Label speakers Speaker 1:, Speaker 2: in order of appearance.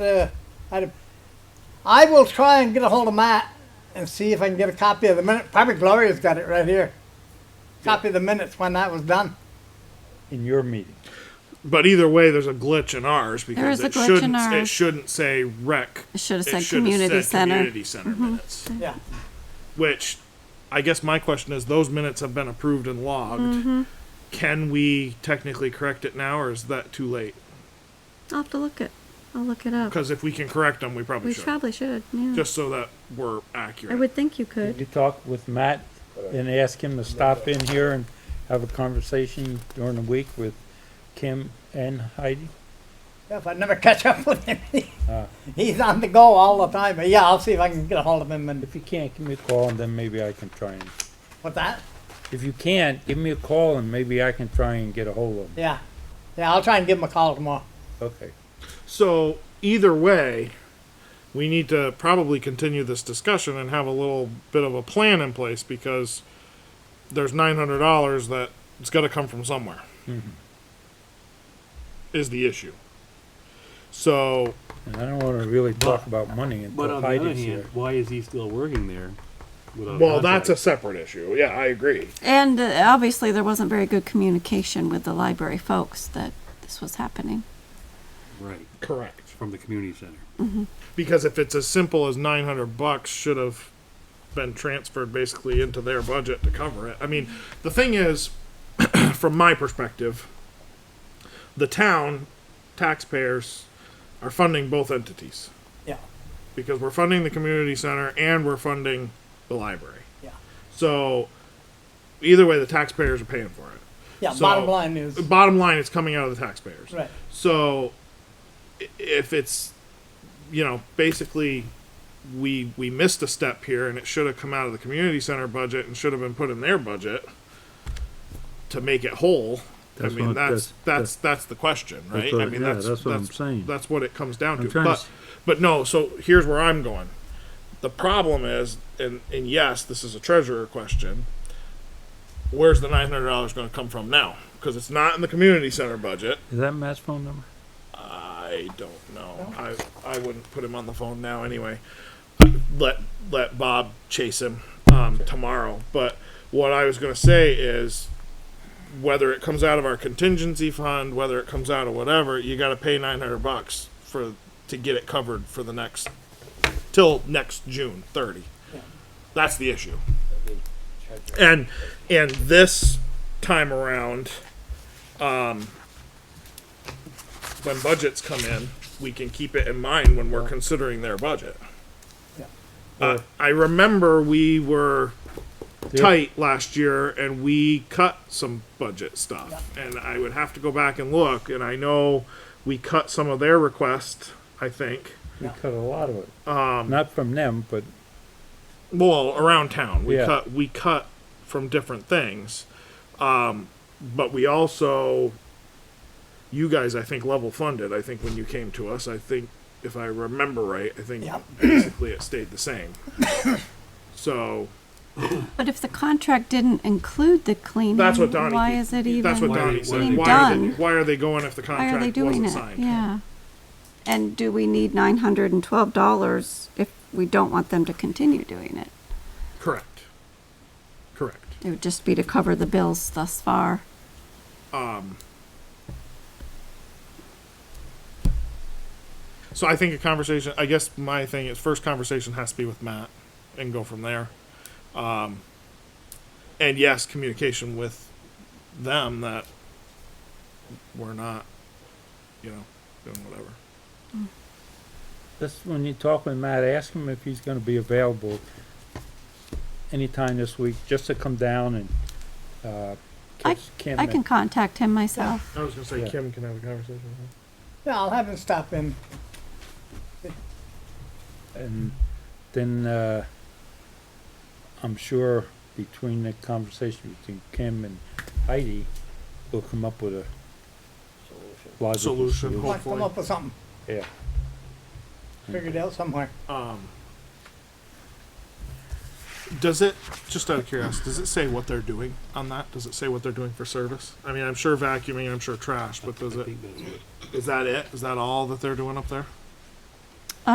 Speaker 1: Uh, I'd, I will try and get a hold of Matt and see if I can get a copy of the minute. Probably Gloria's got it right here. Copy of the minutes when that was done.
Speaker 2: in your meeting.
Speaker 3: But either way, there's a glitch in ours because
Speaker 4: is a
Speaker 3: it
Speaker 4: glitch
Speaker 3: shouldn't
Speaker 4: in
Speaker 3: it
Speaker 4: ours.
Speaker 3: shouldn't say rec.
Speaker 4: It should have said
Speaker 3: should've
Speaker 4: community
Speaker 3: said
Speaker 4: center. Mm-hmm.
Speaker 3: Community center minutes.
Speaker 1: Yeah.
Speaker 3: Which, I guess my question is, those minutes have been approved and logged.
Speaker 4: Mm-hmm.
Speaker 3: Can we technically correct it now, or is that too late?
Speaker 4: I'll have to look it. I'll look it up.
Speaker 3: Because if we can correct them, we probably
Speaker 4: We
Speaker 3: should.
Speaker 4: probably should. Yeah.
Speaker 3: Just so that we're
Speaker 4: I
Speaker 3: accurate.
Speaker 4: would think you
Speaker 2: Did
Speaker 4: could.
Speaker 2: you talk with Matt and ask him to stop in here and have a conversation during the week with Kim and Heidi?
Speaker 1: Yeah, If I never catch up with him, Uh. he's on the go all the time. But yeah, I'll see if I can get a hold of him and
Speaker 2: If you can't, give me a call and then maybe I can try and,
Speaker 1: with that.
Speaker 2: if you can't, give me a call and maybe I can try and get a hold of him.
Speaker 1: Yeah. Yeah, I'll try and give him a call tomorrow.
Speaker 2: Okay.
Speaker 3: So either way, we need to probably continue this discussion and have a little bit of a plan in place because there's nine hundred dollars that it's got to come from somewhere. Is the issue. So
Speaker 2: And I don't wanna really talk about money
Speaker 5: But
Speaker 2: until
Speaker 5: on the other
Speaker 2: Heidi's
Speaker 5: hand,
Speaker 2: here.
Speaker 5: why is he still working there? without
Speaker 3: well, that's a
Speaker 5: contract?
Speaker 3: separate issue. Yeah, I agree.
Speaker 4: And uh, obviously, there wasn't very good communication with the library folks that this was happening.
Speaker 5: right
Speaker 3: Correct.
Speaker 5: from the community center.
Speaker 3: Because if it's as simple as nine hundred bucks, should have been transferred basically into their budget to cover it. I mean, the thing is, from my perspective, the town taxpayers are funding both entities
Speaker 1: Yeah.
Speaker 3: because we're funding the community center and we're funding the library.
Speaker 1: Yeah.
Speaker 3: So either way, the taxpayers are paying for it.
Speaker 1: Yeah,
Speaker 3: So- uh,
Speaker 1: bottom line is
Speaker 3: Bottom line, it's coming out of the taxpayers.
Speaker 1: right.
Speaker 3: So i- if it's you know basically we we missed a step here and it should have come out of the community center budget and should have been put in their budget to make it whole.
Speaker 6: That's
Speaker 3: I mean
Speaker 6: what-
Speaker 3: that's
Speaker 6: that's-
Speaker 3: that's that's the question, right?
Speaker 6: what-
Speaker 3: I mean
Speaker 6: yeah, that's what I'm saying.
Speaker 3: That's what it comes down
Speaker 6: I'm
Speaker 3: to.
Speaker 6: trying to
Speaker 3: But
Speaker 6: s-
Speaker 3: but no, so here's where I'm going. The problem is and and yes, this is a treasurer question. Where's the nine hundred dollars going to come from now? Because it's not in the community center budget.
Speaker 2: Is that Matt's phone number?
Speaker 3: I don't know. I I wouldn't put him on the phone now anyway. Let let Bob chase him um, tomorrow. But what I was gonna say is whether it comes out of our contingency fund, whether it comes out of whatever, you gotta pay nine hundred bucks for to get it covered for the next till next June thirty. That's the issue. And and this time around when budgets come in, we can keep it in mind when we're considering their budget.
Speaker 1: Yeah.
Speaker 3: Uh, I remember we were tight last year and we cut some budget stuff. And I would have to go back and look, and I know we cut some of their requests, I think.
Speaker 2: We cut a lot of it. Um. Not from them, but
Speaker 3: Well, around town, we
Speaker 2: Yeah.
Speaker 3: cut we cut from different things, um, but we also, you guys, I think level funded. I think when you came to us, I think if I remember right, I think
Speaker 1: Yeah.
Speaker 3: basically it stayed the same. so
Speaker 4: But if the contract didn't include the cleaning,
Speaker 3: that's what Donnie.
Speaker 4: why is it even
Speaker 3: That's what
Speaker 5: Why are-
Speaker 3: Donnie
Speaker 5: why
Speaker 3: said.
Speaker 5: are they
Speaker 3: Why are, they,
Speaker 4: done?
Speaker 3: why are they going if the
Speaker 4: why are
Speaker 3: contract
Speaker 4: they doing
Speaker 3: wasn't
Speaker 4: it?
Speaker 3: signed?
Speaker 4: Yeah. And do we need nine hundred and twelve dollars if we don't want them to continue doing it?
Speaker 3: Correct. Correct.
Speaker 4: It would just be to cover the bills thus far.
Speaker 3: So I think a conversation. I guess my thing is first conversation has to be with Matt, and go from there. Um, and yes, communication with them that we're not, you know, doing whatever.
Speaker 2: Just when you talk with Matt, ask him if he's gonna be available anytime this week, just to come down and, uh,
Speaker 4: I-
Speaker 2: give Kim
Speaker 4: I
Speaker 2: a-
Speaker 4: can contact him myself.
Speaker 3: I was gonna say
Speaker 2: Yeah.
Speaker 3: Kim can have a conversation. with
Speaker 1: Yeah, I'll have him stop in.
Speaker 2: And then, uh, I'm sure between the conversation between Kim and Heidi, we'll come up with a logical
Speaker 3: Solution.
Speaker 1: Might
Speaker 2: solution.
Speaker 1: come
Speaker 3: Hopefully.
Speaker 1: up with something.
Speaker 2: Yeah.
Speaker 1: Figure it out somewhere.
Speaker 3: her. Um, does it? Just out of curiosity, does it say what they're doing on that? Does it say what they're doing for service? I mean, I'm sure vacuuming, I'm sure trash, but does
Speaker 5: I
Speaker 3: it?
Speaker 5: think that's what
Speaker 3: Is that it? Is that all that they're doing up there?